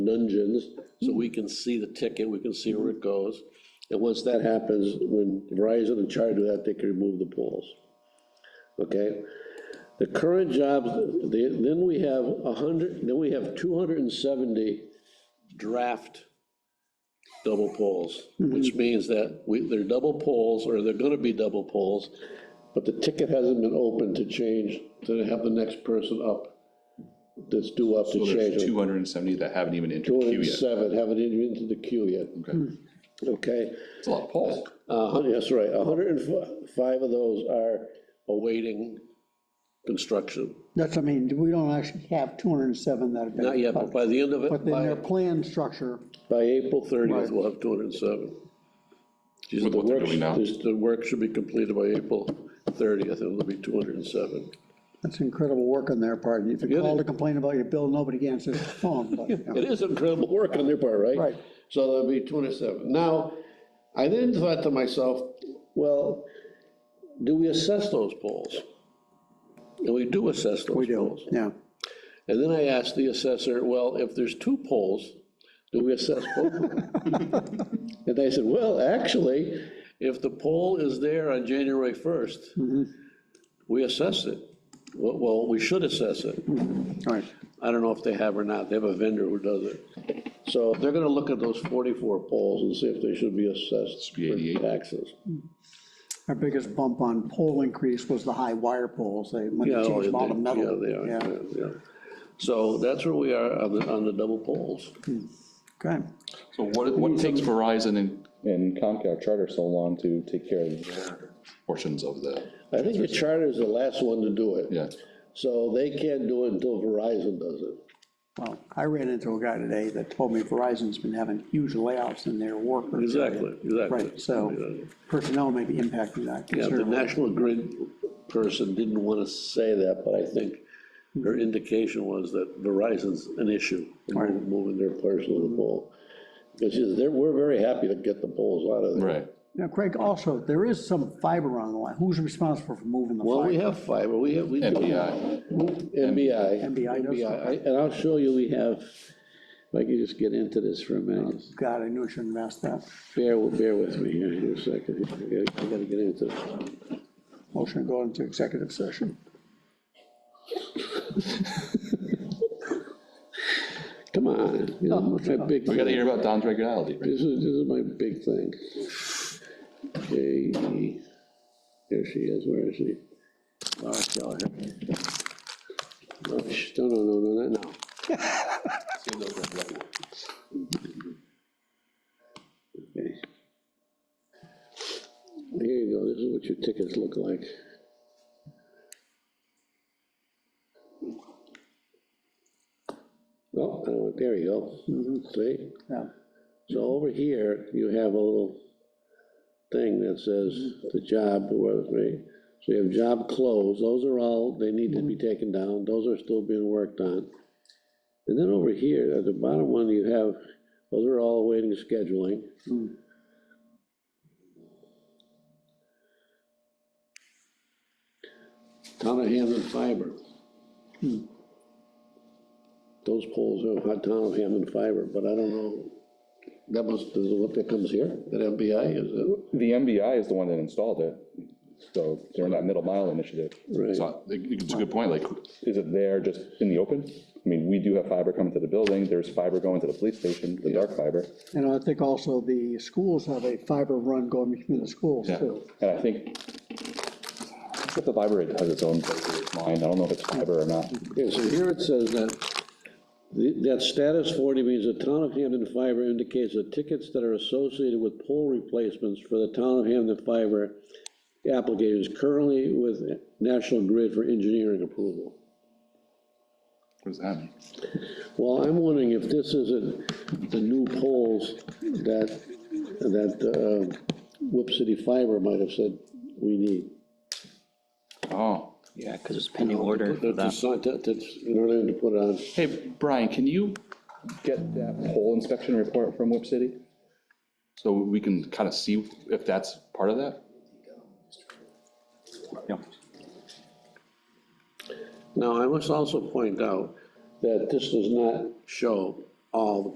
nungeons, so we can see the ticket, we can see where it goes. And once that happens, when Verizon and Charter do that, they can remove the poles. Okay? The current jobs, the- then we have a hundred, then we have two hundred and seventy draft double poles, which means that we, they're double poles, or they're gonna be double poles, but the ticket hasn't been opened to change, to have the next person up, that's due up to So change. there's it. 270 that haven't even entered Two queue and yet. seven, haven't entered into the queue yet, Okay, okay? It's a lot of polls. Uh, hun- that's right, hundred and five of those are awaiting construction. That's, I mean, we don't actually have 207 that have been. Not yet, but by the end of But it, in their by, plan structure, by April thirtieth, Right. we'll have two hundred and seven. With what they're doing now. The work should be completed by April thirtieth, and it'll be two hundred and seven. that's incredible work on their part. If Yeah, you call they- to complain about your bill, nobody answers the phone, but, you know. It is incredible work on their part, right? Right. So that'll be two hundred seven. Now, I then thought to myself, well, do we assess those polls? And we do assess those we do, polls. yeah. And then I asked the assessor, well, if there's two polls, do we assess both of them? And they said, well, actually, if the poll is there on January first, Mm-hmm. we assess it. Well- Well, we should assess it. All right, I don't know if they have or not, they have a vendor who does it. So they're gonna look at those forty-four polls and see if they should be assessed Should be 88. for taxes. our biggest bump on pole increase was the high wire poles, they, when Yeah, they changed them all they- to metal. Yeah, they are, yeah, yeah. So that's where we are on the, on the double polls. Okay, So what, what takes Verizon and and Comcast Charter so long to take care of them. portions of the, I think the charter is the last one to do it. yeah, So they can't do it until Verizon does it. well, I ran into a guy today that told me Verizon's been having huge layoffs in their workers. Exactly, exactly. Right, so personnel may be impacting that Yeah, the considerably. National Grid person didn't want to say that, but I think her indication was that Verizon's an issue in Right. moving their portion of the poll. Which is, they're, we're very happy to get the polls out of there. right. Now, Craig, also, there is some fiber on the line. Who's responsible for moving the Well, we fiber? have fiber, we have, we do. MPI, MBI. MBI does MBI. I- And I'll show you, we have, if I can just get into this for a minute, just God, I knew I shouldn't have asked that. bear, bear with me here, here a second. I gotta- I gotta get into this. Motion to go into executive session. Come on, you know, my big. we gotta hear about Don's regularity, right? This is, this is my big thing. J E, there she is, where is she? Oh, I saw her. No, sh- No, no, no, no, not now. Okay. Here you go, this is what your tickets look like. Oh, I don't want- there you go, see? Yeah. So over here, you have a little thing that says the job, was, right? So you have job closed, those are all, they need to be taken down, those are still being worked on. And then over here, at the bottom one, you have, those are all awaiting scheduling. Town of Hammond Fiber. Those poles are hot town of Hammond Fiber, but I don't know, that was, is it what that comes here, that MBI, is uh, it? The MBI is the one that installed it, so during that middle mile initiative, Right. So it's a good point, like, is it there just in the open? I mean, we do have fiber coming to the building, there's fiber going to the police station, the dark fiber. And I think also the schools have a fiber run going between the schools Yeah. too. And I think, but the library has its own version of mine, I don't know if it's fiber or not. Okay, so here it says that, the- that status 40 means the town of Hampton Fiber indicates that tickets that are associated with pole replacements for the town of Hampton Fiber applicators currently with National Grid for engineering approval. what does that mean? Well, I'm wondering if this isn't the new poles that, that uh, Whip City Fiber might have said we need. Oh, Yeah, because it's pending order for That's, that. that's, in order to put on, hey, Brian, can you, Get that pole inspection report from Whip City? so we can kind of see if that's part of that? Yeah. now, I must also point out that this does not show all the